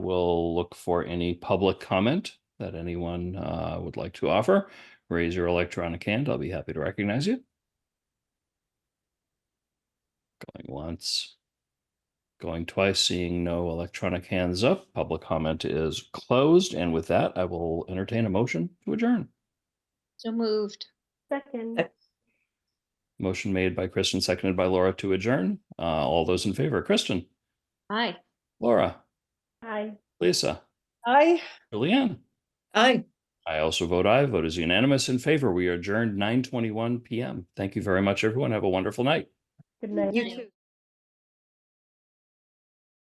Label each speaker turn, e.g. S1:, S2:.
S1: We'll look for any public comment that anyone uh, would like to offer. Raise your electronic hand. I'll be happy to recognize you. Going once. Going twice, seeing no electronic hands up. Public comment is closed. And with that, I will entertain a motion to adjourn.
S2: So moved.
S3: Second.
S1: Motion made by Kristen, seconded by Laura to adjourn. Uh, all those in favor, Kristen,
S2: Aye.
S1: Laura,
S3: Aye.
S1: Lisa,
S3: Aye.
S1: Julianne.
S3: Aye.
S1: I also vote aye. Vote is unanimous in favor. We are adjourned nine twenty-one PM. Thank you very much, everyone. Have a wonderful night.
S3: Good night.
S2: You too.